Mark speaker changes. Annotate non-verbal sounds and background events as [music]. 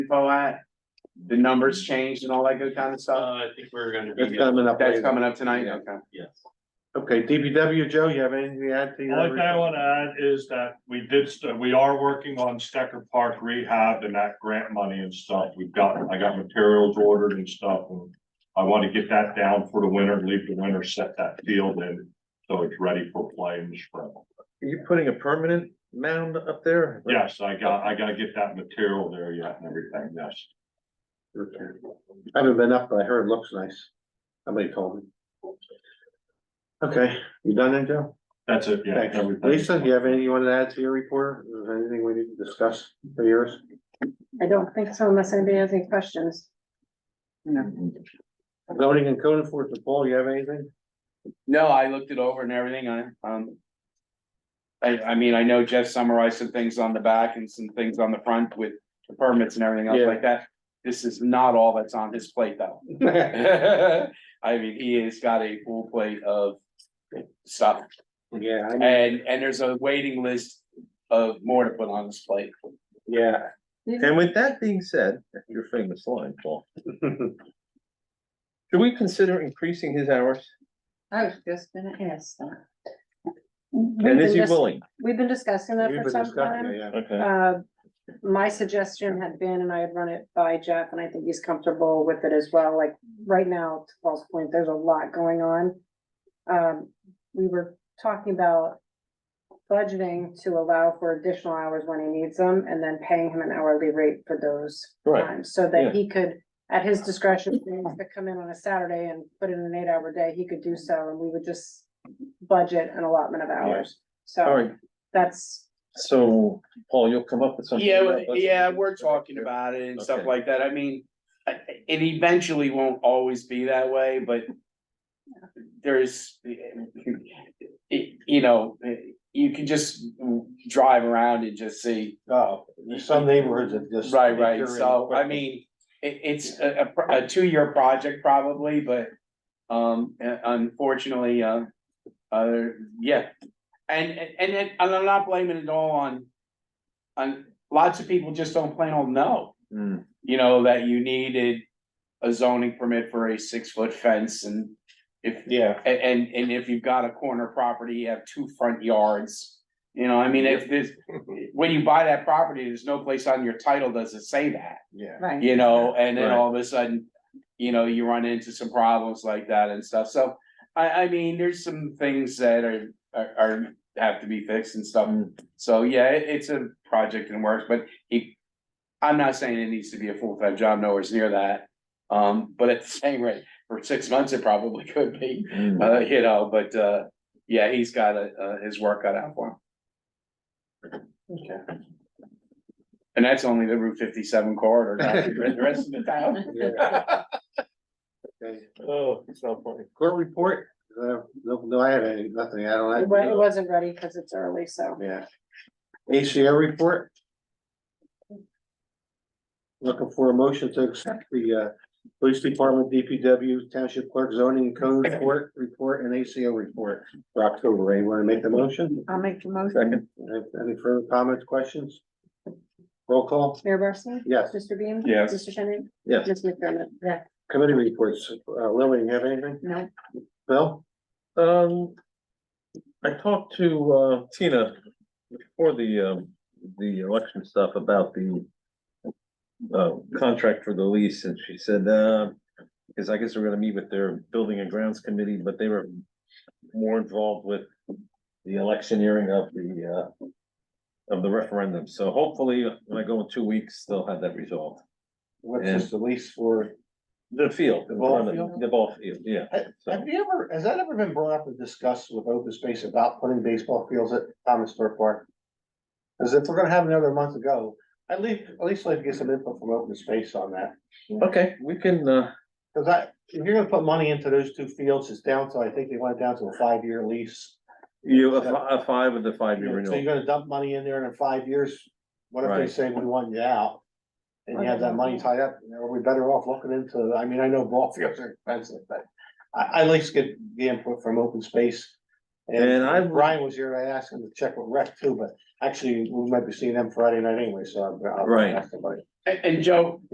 Speaker 1: info at? The numbers changed and all that good kind of
Speaker 2: Uh,
Speaker 1: stuff?
Speaker 2: I think we're gonna
Speaker 3: That's
Speaker 2: be,
Speaker 3: coming up
Speaker 1: That's
Speaker 3: later.
Speaker 1: coming up tonight,
Speaker 3: Yeah.
Speaker 1: okay.
Speaker 2: yes.
Speaker 3: Okay, DPW, Joe, you have anything to add to
Speaker 4: The only thing I
Speaker 3: your?
Speaker 4: want to add is that we did, st- we are working on Stecker Park rehab and that grant money and stuff. We've got, I got materials ordered and stuff. and I want to get that down for the winter, leave the winter, set that field in, so it's ready for play in the spring.
Speaker 3: Are you putting a permanent mound up there?
Speaker 4: Yes, I got, I gotta get that material there yet and everything, yes.
Speaker 3: Okay. I haven't been up, but I heard it looks nice. Somebody told me. Okay, you done then, Joe?
Speaker 4: That's it, yeah.
Speaker 3: Thanks.
Speaker 4: everything.
Speaker 3: Lisa, do you have anything you want to add to your report? Is there anything we need to discuss for yours?
Speaker 5: I don't think so unless anybody has any questions.
Speaker 3: Zoning and code enforcement, Paul, you have anything?
Speaker 1: No, I looked it over and everything, I, um. I, I mean, I know Jeff summarized some things on the back and some things on the front with the permits and everything else
Speaker 3: Yeah.
Speaker 1: like that. This is not all that's on his plate [laughs] though. I mean, he has got a full plate of stuff
Speaker 3: Yeah, I know,
Speaker 1: and, and there's a waiting list of more to put on his plate.
Speaker 3: yeah.
Speaker 5: Yeah.
Speaker 6: And with that being said, your famous line,
Speaker 3: [laughs]
Speaker 6: Paul. Should we consider increasing his hours?
Speaker 5: I was just gonna ask that.
Speaker 6: And is
Speaker 5: We've been
Speaker 6: he
Speaker 5: dis-
Speaker 6: willing?
Speaker 5: We've been discussing that
Speaker 3: We've
Speaker 5: for
Speaker 3: been
Speaker 5: some
Speaker 3: discussing
Speaker 5: time.
Speaker 3: it, yeah.
Speaker 6: Okay,
Speaker 5: Uh, my suggestion had been, and I had run it by Jeff, and I think he's comfortable with it as well, like, right now, to Paul's point, there's a lot going on. Um, we were talking about budgeting to allow for additional hours when he needs them, and then paying him an hourly rate for those
Speaker 6: right,
Speaker 5: times, so
Speaker 6: yeah.
Speaker 5: that he could, at his discretion, if he wants to come in on a Saturday and put in an eight-hour day, he could do so, and we would just budget an allotment of hours,
Speaker 6: all
Speaker 5: so
Speaker 6: right.
Speaker 5: that's
Speaker 6: So, Paul, you'll come up with something.
Speaker 1: Yeah,
Speaker 6: about
Speaker 1: well,
Speaker 6: budget?
Speaker 1: yeah, we're talking about it and stuff
Speaker 6: Okay.
Speaker 1: like that, I mean, I- I- it eventually won't always be that way, but. There's, it- you know, you can just drive around and just see,
Speaker 3: Oh, there's some neighborhoods that just.
Speaker 1: right, right, so, I mean. It, it's a, a pro- a two-year project probably, but, um, unfortunately, uh, uh, yeah. And, and, and it- and I'm not blaming it all on, on, lots of people just don't plain old know
Speaker 6: Hmm,
Speaker 1: you know, that you needed a zoning permit for a six-foot fence and if,
Speaker 3: Yeah,
Speaker 1: and, and, and if you've got a corner property, you have two front yards. You know, I mean, if this,
Speaker 6: [laughs]
Speaker 1: when you buy that property, there's no place on your title does it say that,
Speaker 3: yeah.
Speaker 5: Right.
Speaker 1: you know, and then
Speaker 6: Right.
Speaker 1: all of a sudden, you know, you run into some problems like that and stuff, so I, I mean, there's some things that are, are, are, have to be fixed and stuff.
Speaker 6: Mm.
Speaker 1: So, yeah, it- it's a project in works, but he, I'm not saying it needs to be a full-time job, nowhere near that. Um, but at the same rate, for six months, it probably [laughs] could be,
Speaker 4: Mm-hmm.
Speaker 6: hmm.
Speaker 1: uh, you know, but, uh, yeah, he's got, uh, uh, his work cut out for him.
Speaker 3: Okay.
Speaker 1: And that's only the Route fifty-seven corridor, not the rest of the town.
Speaker 3: Yeah. Okay.
Speaker 6: Oh, it's not funny.
Speaker 3: Court report, uh, no, no, I have any, nothing, I
Speaker 5: It
Speaker 3: don't
Speaker 5: wa- it
Speaker 3: have,
Speaker 5: wasn't ready because it's early, so.
Speaker 3: yeah. ACO report. Looking for a motion to accept the, uh, police department, DPW, township clerk, zoning and code report, report and ACO report for October, anyone wanna make the motion?
Speaker 5: I'll make the
Speaker 6: Second,
Speaker 3: Any any further comments, questions? Roll call,
Speaker 5: Mayor Barsney?
Speaker 3: yes,
Speaker 5: Mr. Beam?
Speaker 1: Yes.
Speaker 5: Mr. Shannon?
Speaker 6: yes,
Speaker 5: Ms. McDermott? Yeah.
Speaker 3: committee reports, uh, Lily, you have anything?
Speaker 5: No.
Speaker 3: Bill?
Speaker 6: um. I talked to, uh, Tina before the, um, the election stuff about the. Uh, contract for the lease, and she said, uh, because I guess we're gonna meet with their building and grounds committee, but they were. More involved with the electioneering of the, uh. Of the referendum, so hopefully when I go in two weeks, they'll have that resolved.
Speaker 3: What's this, the lease for?
Speaker 6: The field.
Speaker 3: The ball
Speaker 6: in front of-
Speaker 3: field?
Speaker 6: The ball field, yeah. So-
Speaker 3: Have you ever, has that ever been brought up and discussed with open space about putting baseball fields at Thomas Stewart Park? Cause if we're gonna have another month to go, I'd leave, at least like to get some input from open space on that.
Speaker 6: Okay, we can, uh,
Speaker 3: Cause I, if you're gonna put money into those two fields, it's down to, I think they went down to a five-year lease.
Speaker 6: you, a fi- a five with the five year
Speaker 3: So you're
Speaker 6: renewal.
Speaker 3: gonna dump money in there and in five years, what if they
Speaker 6: Right.
Speaker 3: say we want you out? And you have that money tied up, you know, are we better off looking into, I mean, I know ball fields are expensive, but I, I like to get the input from open space. And
Speaker 6: And I-
Speaker 3: I, Brian was here, I asked him to check with rec too, but actually, we might be seeing them Friday night anyway, so. I'll- I'll
Speaker 6: Right.
Speaker 3: ask somebody.
Speaker 1: [laughs] And, and Joe,